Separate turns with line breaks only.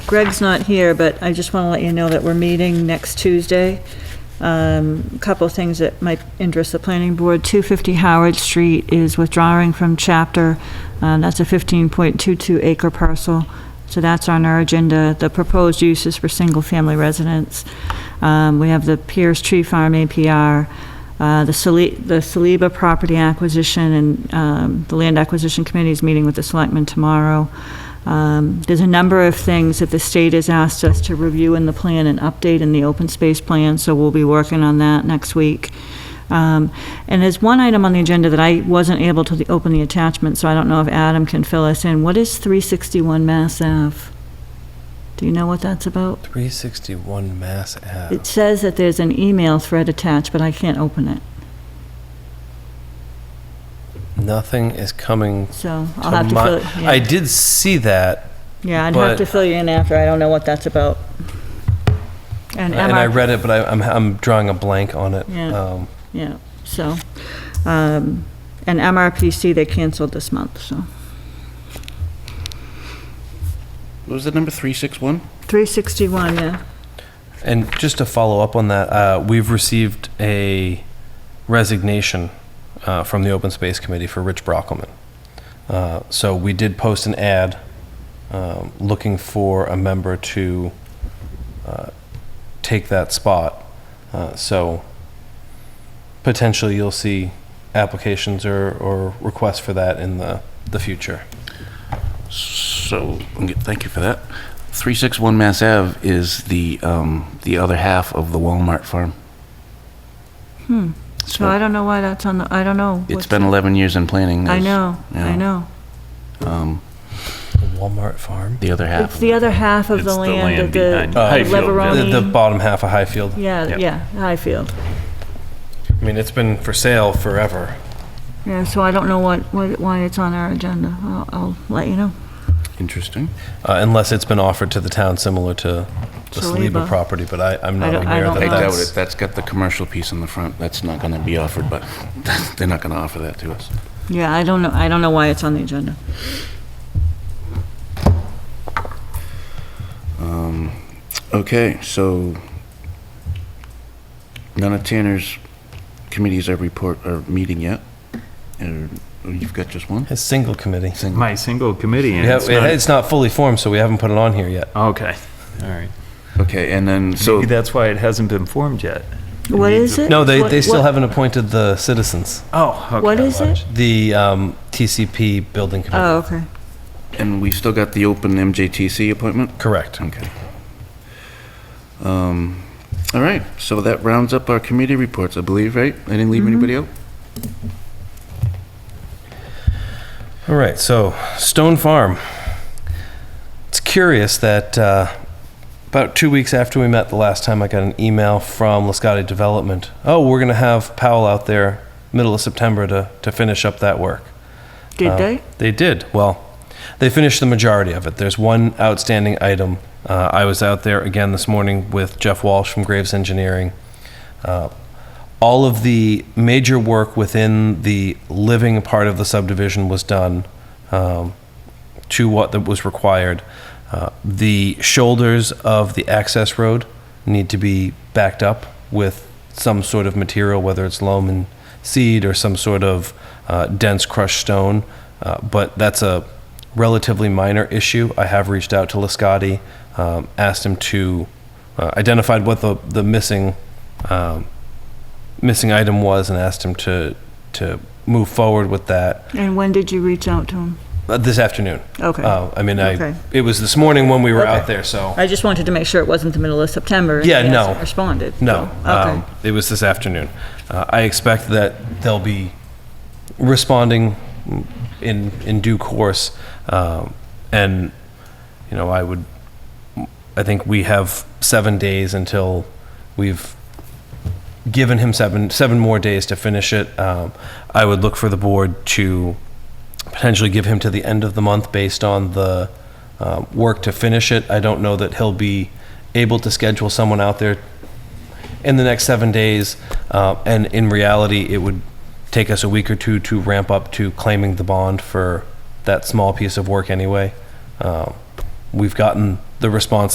Greg's not here, but I just want to let you know that we're meeting next Tuesday. Um, Couple of things that might interest the planning board. 250 Howard Street is withdrawing from chapter. Uh, That's a 15.22 acre parcel. So that's on our agenda. The proposed use is for single-family residents. Um, We have the Pierce Tree Farm APR, uh, the Sali- the Saliba property acquisition, and um, the Land Acquisition Committee is meeting with the selectmen tomorrow. Um, There's a number of things that the state has asked us to review in the plan and update in the open space plan, so we'll be working on that next week. Um, And there's one item on the agenda that I wasn't able to open the attachment, so I don't know if Adam can fill us in. What is 361 Mass Ave? Do you know what that's about?
361 Mass Ave.
It says that there's an email thread attached, but I can't open it,
Nothing is coming
so
to
I'll have to
my-
fill, it-
I
yeah.
did see that,
yeah, I'd have
but-
to fill you in after, I don't know what that's about. And
and I
MRPC
read it, but I, I'm, I'm drawing a blank on it.
Yeah.
Um,
Yeah, so, um, and MRPC, they canceled this month, so.
What was the number, 361?
361, yeah.
And just to follow up on that, uh, we've received a resignation uh, from the Open Space Committee for Rich Brockelman. Uh, so we did post an ad um, looking for a member to uh, take that spot. Uh, so potentially you'll see applications or, or requests for that in the, the future.
So, okay, thank you for that. 361 Mass Ave is the, um, the other half of the Walmart farm. Hmm.
So I don't know why that's on the, I don't know.
It's
what's-
been 11 years in planning.
I
is
know, I
yeah.
know.
The Walmart farm?
The other half.
It's the other half of the
It's the
land of
land
the
behind-
the
Uh, Highfield,
yeah.
Leveroni.
The, the bottom half of Highfield.
Yeah,
Yep.
yeah, Highfield.
I mean, it's been for sale forever.
Yeah, so I don't know what, what- why it's on our agenda. I'll, I'll let you know.
Interesting.
Uh, unless it's been offered to the town similar to the Saliba
Saliba.
property, but I, I'm not
don't- I
aware
don't
that
I
know.
doubt it.
that's.
That's got the commercial piece on the front. That's not going to be offered, but they're not going to offer that to us.
Yeah, I don't know, I don't know why it's on the agenda.
Um, Okay, so none of Tanner's committees are report, are meeting yet? Or or you've got just one?
His single committee.
Single.
My single committee, and
We have-
it's
it-
not-
it's not fully formed, so we haven't put it on here yet.
Okay, all right.
Okay, and then, so,
Maybe that's why it hasn't been formed yet.
What is it?
No, they,
What-
they still
what-
haven't appointed the citizens,
Oh, okay.
What is it?
the um, TCP building
Oh,
committee.
okay.
and we've still got the open MJTC
Oh.
appointment?
Correct.
Okay. Um, All right, so that rounds up our committee reports, I believe, right? I didn't leave anybody out?
All right, so Stone Farm. It's curious that uh, about two weeks after we met the last time, I got an email from Lascati Development. Oh, we're going to have Powell out there middle of September to, to finish up that work.
Did
Uh,
they?
They did. Well, they finished the majority of it. There's one outstanding item. Uh, I was out there again this morning with Jeff Walsh from Graves Engineering. Uh, all of the major work within the living part of the subdivision was done um, to what that was required. Uh, the shoulders of the access road need to be backed up with some sort of material, whether it's loam and seed or some sort of uh, dense crushed stone. Uh, but that's a relatively minor issue. I have reached out to Lascotti, um, asked him to uh, identified what the the missing um, missing item was, and asked him to to move forward with that
And when did you reach out to them?
uh, this afternoon.
Okay.
Uh, I mean, I,
Okay.
it was this morning when we were
Okay.
out there, so,
I just wanted to make sure it wasn't the middle of September. and
Yeah,
they
no.
hasn't Responded. so,
no.
Okay.
um, It was this afternoon. Uh, I expect that they'll be responding in, in due course. um, And, you know, I would, I think we have seven days until we've given him seven, seven more days to finish it. Um, I would look for the board to potentially give him to the end of the month based on the uh, work to finish it. I don't know that he'll be able to schedule someone out there in the next seven days. Uh, and in reality, it would take us a week or two to ramp up to claiming the bond for that small piece of work anyway. Um, Uh, we've gotten the response